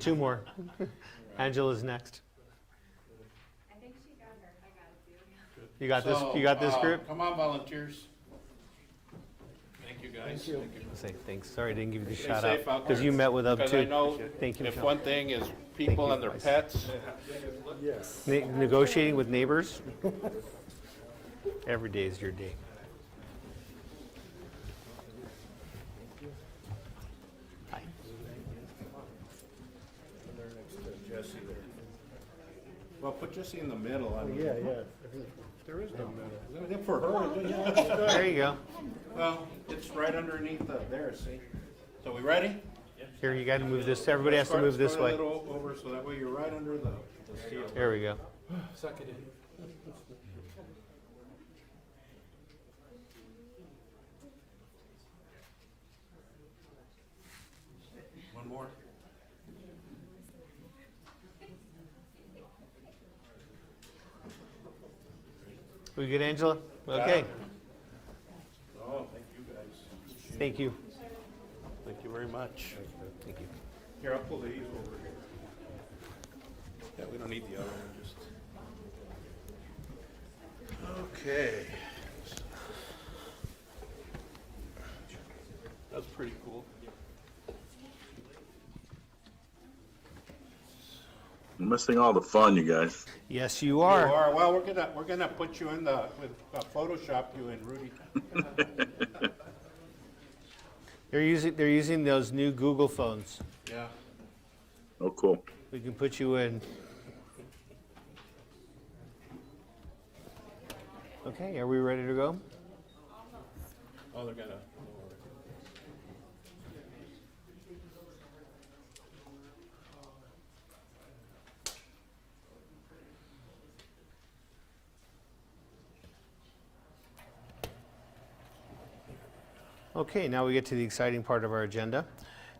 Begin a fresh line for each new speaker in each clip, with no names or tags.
Two more. Angela's next.
I think she got her, I got it too.
You got this,
So,
you got this
uh,
group?
Come on, volunteers. Thank you, guys. Thank you.
Say thanks, sorry, I didn't give you the
Stay
shout
safe
out,
out
because
there.
you met with them
Because I
too.
know
Thank you,
if
Michelle.
one thing is people
you,
and their
guys.
pets,
Ne- Negotiating with neighbors? Every day is your day. Hi.
well, put Jesse in the middle. I mean,
Yeah, yeah.
There is no middle. Is it for her? Is it-
There you go.
Well, it's right underneath the, there, see? So we ready?
Here, you gotta move this, everybody has to
Start-
move this
start
way.
a little over, so that way you're right under the, the seal.
There we go.
Suck it in.
One more.
We good, Angela? Okay,
Oh, thank you, guys.
thank you.
Thank you very much.
Thank you.
Here, I'll pull these over here. Yeah, we don't need the other one, just. Okay. That's pretty cool.
I'm missing all the fun, you guys.
Yes, you
You
are.
are, well, we're gonna, we're gonna put you in the, with uh, Photoshop you in, Rudy.
They're using, they're using those new Google phones.
Yeah.
Oh, cool.
We can put you in. Okay, are we ready to go?
Oh, they're gonna.
Okay, now we get to the exciting part of our agenda.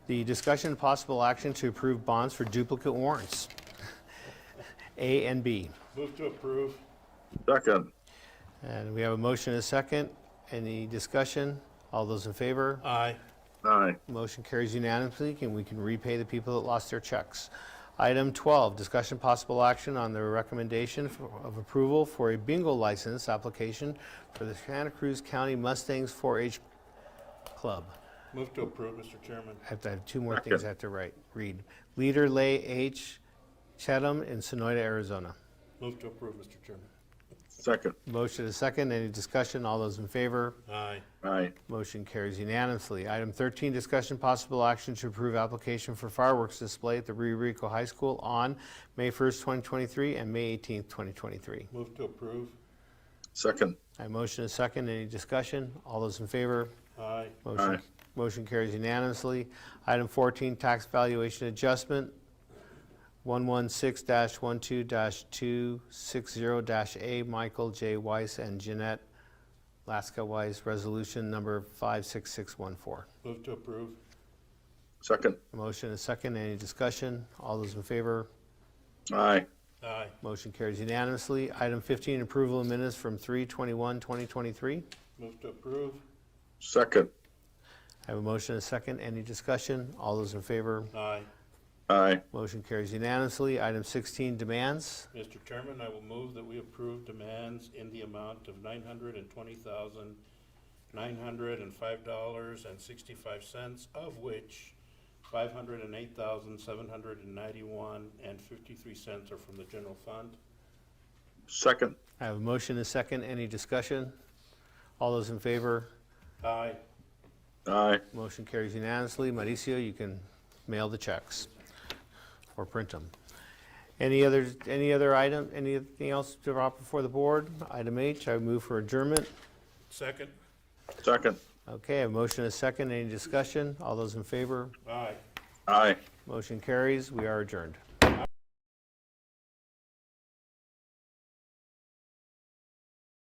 The discussion and possible action to approve bonds for duplicate warrants. A and B.
Move to approve.
Second.
And we have a motion and a second. Any discussion? All those in favor?
Aye.
Aye.
Motion carries unanimously, and we can repay the people that lost their checks. Item 12, discussion possible action on the recommendation for- of approval for a bingo license application for the Santa Cruz County Mustangs 4-H Club.
Move to approve, Mr. Chairman.
I have to I have two more things I have to write, read. Leader Lay H. Chatham in Sonoyta, Arizona.
Move to approve, Mr. Chairman.
Second.
Motion is second. Any discussion? All those in favor?
Aye.
Aye.
Motion carries unanimously. Item 13, discussion possible action to approve application for fireworks display at the Rio Rico High School on May 1st, 2023 and May 18th, 2023.
Move to approve.
Second.
I motion a second. Any discussion? All those in favor?
Aye.
Motion-
Aye.
Motion carries unanimously. Item 14, tax valuation adjustment, 116-12-260-A, Michael J. Weiss and Jeanette Laska Weiss, resolution number 56614.
Move to approve.
Second.
Motion is second. Any discussion? All those in favor?
Aye.
Aye.
Motion carries unanimously. Item 15, approval of minutes from 3/21/2023.
Move to approve.
Second.
I have a motion and a second. Any discussion? All those in favor?
Aye.
Aye.
Motion carries unanimously. Item 16, demands.
Mr. Chairman, I will move that we approve demands in the amount of nine hundred and twenty thousand, nine hundred and five dollars and sixty-five cents, of which five hundred and eight thousand, seven hundred and ninety-one and fifty-three cents are from the general fund.
Second.
I have a motion and a second. Any discussion? All those in favor?
Aye.
Aye.
Motion carries unanimously. Mauricio, you can mail the checks or print them. Any other, any other item, anything else to drop before the board? Item H, I move for adjournment.
Second.
Second.
Okay, I have a motion and a second. Any discussion? All those in favor?
Aye.
Aye.
Motion carries. We are adjourned.